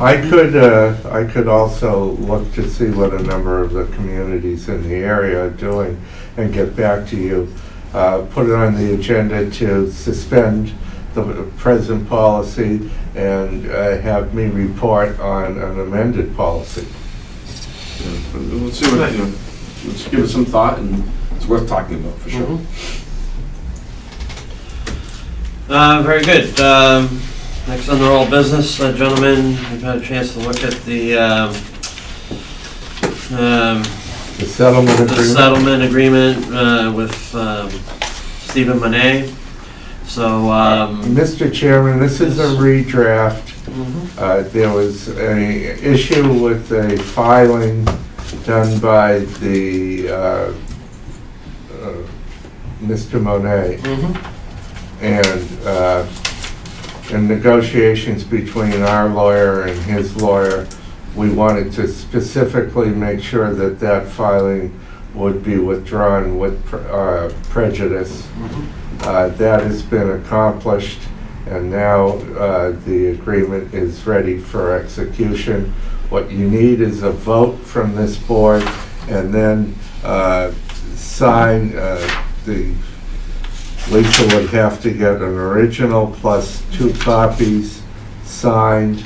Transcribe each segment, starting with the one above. I could, uh, I could also look to see what a number of the communities in the area are doing and get back to you. Uh, Put it on the agenda to suspend the present policy and uh, have me report on an amended policy. Let's see what, you know, let's give it some thought, and it's worth talking about, for sure. Uh, very good. Um, next on the roll of business, uh, gentlemen, we've had a chance to look at the, um, um, The settlement the agreement, settlement agreement, uh, with, um, Stephen Monet. So, um, Mr. Chairman, this is a Yes. redraft. mhm, Uh, There was a issue with a filing done by the, uh, uh, Mr. Monet, mhm, and, uh, in negotiations between our lawyer and his lawyer, we wanted to specifically make sure that that filing would be withdrawn with pre- uh, prejudice. mhm. Uh, That has been accomplished, and now uh, the agreement is ready for execution. What you need is a vote from this board, and then uh, sign, uh, the, Lisa would have to get an original plus two copies signed,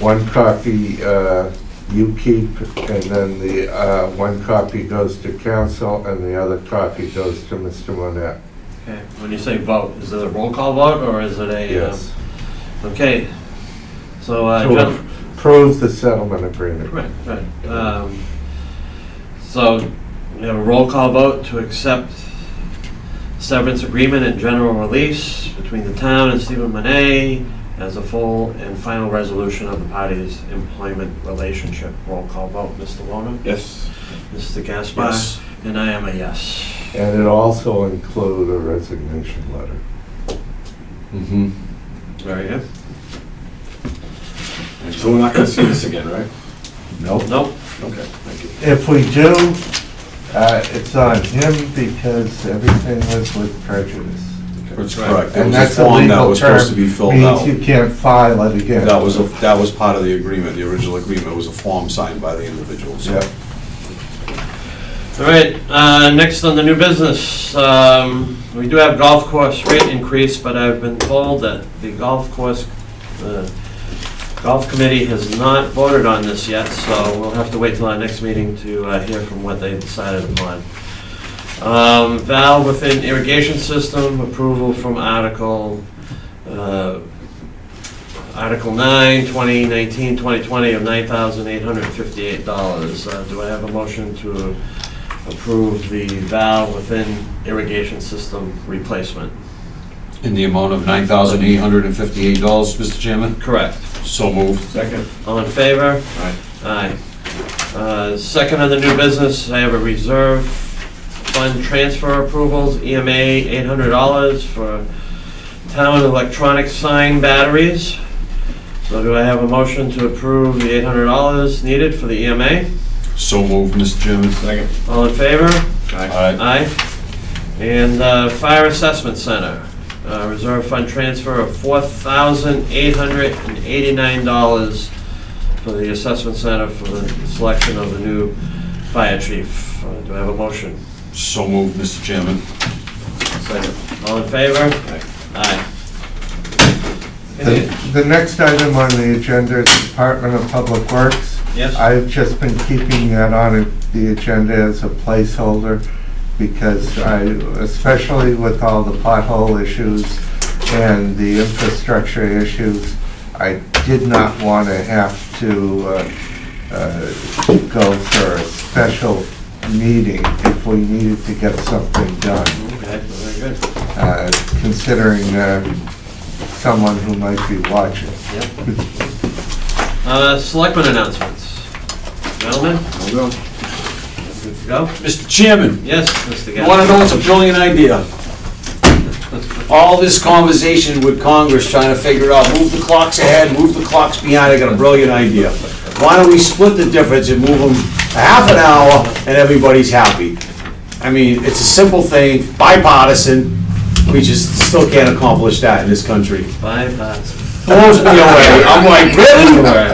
one copy uh, you keep, and then the, uh, one copy goes to council, and the other copy goes to Mr. Monette. Okay, when you say vote, is it a roll call vote, or is it a? uh, Yes. Okay, so, uh, To gen- approve the settlement agreement. Right, right. Um, So, we have a roll call vote to accept severance agreement and general release between the town and Stephen Monet as a full and final resolution of the parties' employment relationship. Roll call vote, Mr. Warner, Yes. Mr. Gaspar, and I am a yes. And it also include a resignation letter. Mm-hmm. Very good. So we're not gonna see this again, right? Nope. Nope, Okay, thank you. If we do, uh, it's on him because everything was with prejudice. That's correct. It And was that's a a form that legal was supposed to term. be filled Means you out. can't file it again. That was, a- that was part of the agreement, the original agreement was a form signed by the individuals. Yep. All right, uh, next on the new business, um, we do have golf course rate increase, but I've been told that the golf course, uh, golf committee has not voted on this yet, so we'll have to wait till our next meeting to uh, hear from what they decided upon. Um, Valve within irrigation system, approval from Article, uh, Article 9, 2019, 2020 of $9,858. Uh, Do I have a motion to approve the valve within irrigation system replacement. In the amount of nine thousand eight hundred and fifty-eight dollars, Mr. Chairman? Correct. So moved. Second. All in favor? Aye. Aye. Uh, Second on the new business, I have a reserve fund transfer approvals, E EMA $800 for town electronic sign batteries. So do I have a motion to approve the $800 needed for the EMA? So moved, Mr. Chairman. Second. All in favor? Aye. Aye. Aye. And uh, Fire Assessment Center, uh, reserve fund transfer of $4,889 for the assessment center for the selection of the new fire chief. Uh, Do I have a motion? So moved, Mr. Chairman. Second. All in favor? Aye. Aye. The the next item on the agenda is Department of Public Works. Yes? I've just been keeping that on the agenda as a placeholder because I, especially with all the pothole issues and the infrastructure issues, I did not want to have to uh, uh, go for a special meeting if we needed to get something done, Okay, very good. uh, considering uh, someone who might be watching. Yep. Uh, Selectmen announcements. Gentlemen, I'll go. good to go? Mr. Chairman, Yes, Mr. You want to Gaspar? know what's a brilliant idea? All this conversation with Congress trying to figure out, move the clocks ahead, move the clocks behind, I got a brilliant idea. Why don't we split the difference and move them a half an hour and everybody's happy? I mean, it's a simple thing, bipartisan, we just still can't accomplish that in this country. Five, uh, blows me away. I'm like, really?